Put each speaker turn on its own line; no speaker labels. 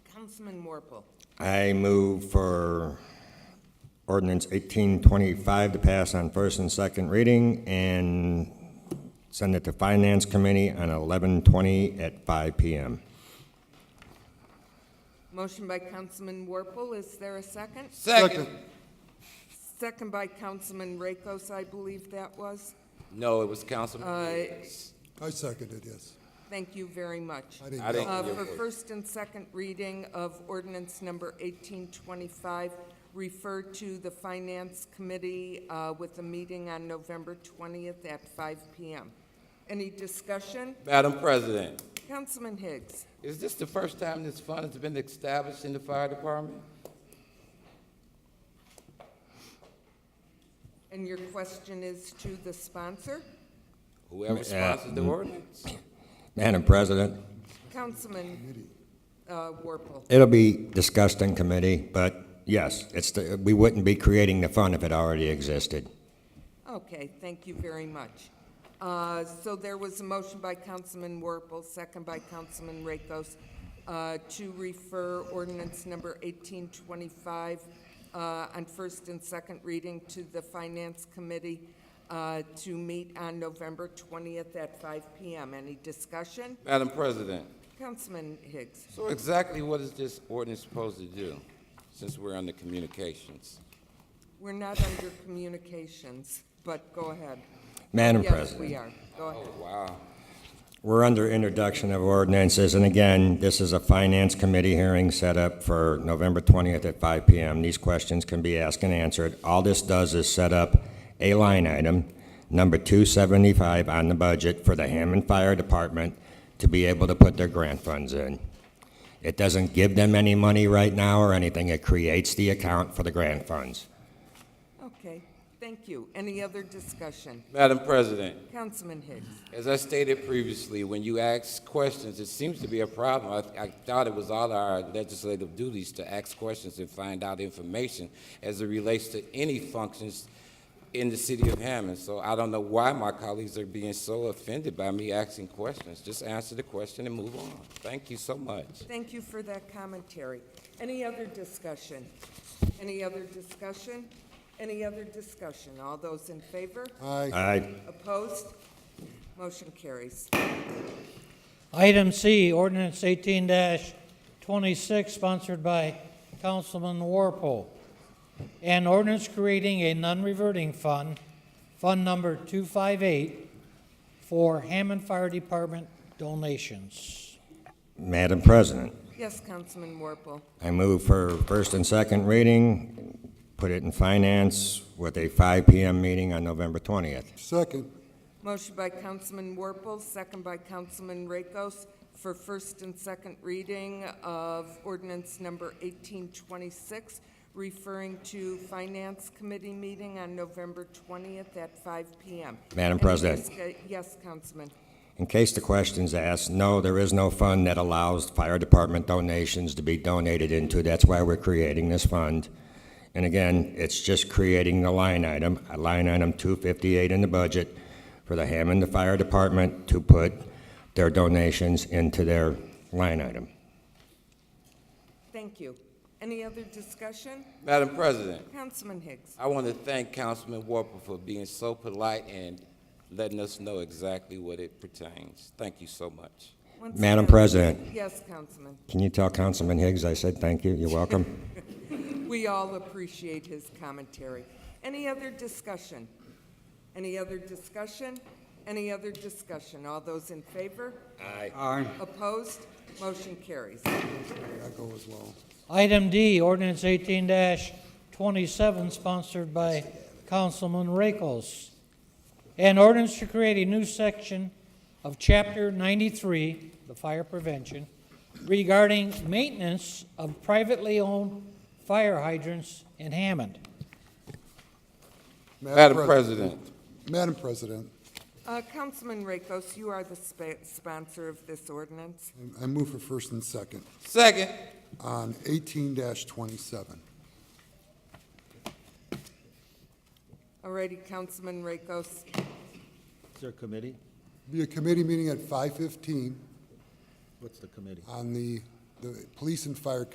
Councilman Warple.
I move for ordinance 1825 to pass on first and second reading and send it to Finance Committee on 1120 at 5 PM.
Motion by Councilman Warple, is there a second?
Second.
Second by Councilman Rakos, I believe that was.
No, it was Councilman.
Uh,
I second it, yes.
Thank you very much.
I didn't
I didn't-
Uh, For first and second reading of ordinance number 1825, refer to the Finance Committee uh, with a meeting on November 20th at 5 PM. Any discussion?
Madam President,
Councilman Higgs?
is this the first time this fund has been established in the fire department?
And your question is to the sponsor?
Whoever sponsors the ordinance?
Madam President,
Councilman uh, Warple?
it'll be discussed in committee, but yes, it's, the- we wouldn't be creating the fund if it already existed.
Okay, thank you very much. Uh, So there was a motion by Councilman Warple, second by Councilman Rakos, uh, to refer ordinance number 1825 uh, on first and second reading to the Finance Committee uh, to meet on November 20th at 5 PM. Any discussion?
Madam President,
Councilman Higgs?
so exactly what is this ordinance supposed to do, since we're under communications?
We're not under communications, but go ahead.
Madam
Yes,
President.
we are. Go ahead.
Wow.
We're under introduction of ordinances, and again, this is a Finance Committee hearing set up for November 20th at 5 PM. These questions can be asked and answered. All this does is set up a line item, number 275 on the budget for the Hammond Fire Department to be able to put their grant funds in. It doesn't give them any money right now or anything. It creates the account for the grant funds.
Okay, thank you. Any other discussion?
Madam President,
Councilman Higgs.
As I stated previously, when you ask questions, it seems to be a problem. I, I thought it was all our legislative duties to ask questions and find out information as it relates to any functions in the city of Hammond. So I don't know why my colleagues are being so offended by me asking questions. Just answer the question and move on. Thank you so much.
Thank you for that commentary. Any other discussion? Any other discussion? Any other discussion? All those in favor?
Aye,
Aye.
Opposed? Motion carries.
Item C, ordinance eighteen twenty-six, sponsored by Councilman Warpole. An ordinance creating a non-reverting fund, Fund Number two-five-eight, for Hammond Fire Department donations.
Madam President.
Yes, Councilman Warple.
I move for first and second reading, put it in finance with a 5 PM meeting on November 20th.
second,
Motion by Councilman Warple, second by Councilman Rakos for first and second reading of ordinance number 1826, referring to Finance Committee meeting on November 20th at 5 PM.
Madam
Any
President.
disca- Yes, Councilman.
In case the question's asked, no, there is no fund that allows fire department donations to be donated into. That's why we're creating this fund. And again, it's just creating the line item, a line item 258 in the budget for the Hammond Fire Department to put their donations into their line item.
Thank you. Any other discussion?
Madam President,
Councilman Higgs.
I want to thank Councilman Warple for being so polite and letting us know exactly what it pertains. Thank you so much.
Once
Madam
again-
President.
Yes, Councilman.
Can you tell Councilman Higgs I said thank you? You're welcome.
We all appreciate his commentary. Any other discussion? Any other discussion? Any other discussion? All those in favor? Aye. Opposed? Motion carries.
I go as well.
Item D, ordinance eighteen twenty-seven, sponsored by Councilman Rakos. An ordinance to create a new section of chapter ninety-three, the fire prevention, regarding maintenance of privately owned fire hydrants in Hammond.
Madam President,
Madam President,
Uh, Councilman Rakos, you are the spa- sponsor of this ordinance.
I- I move for first and second
second.
on eighteen twenty-seven.
Alrighty, Councilman Rakos.
Is there a committee?
Be a committee meeting at five fifteen
What's the committee?
on the, the Police and Fire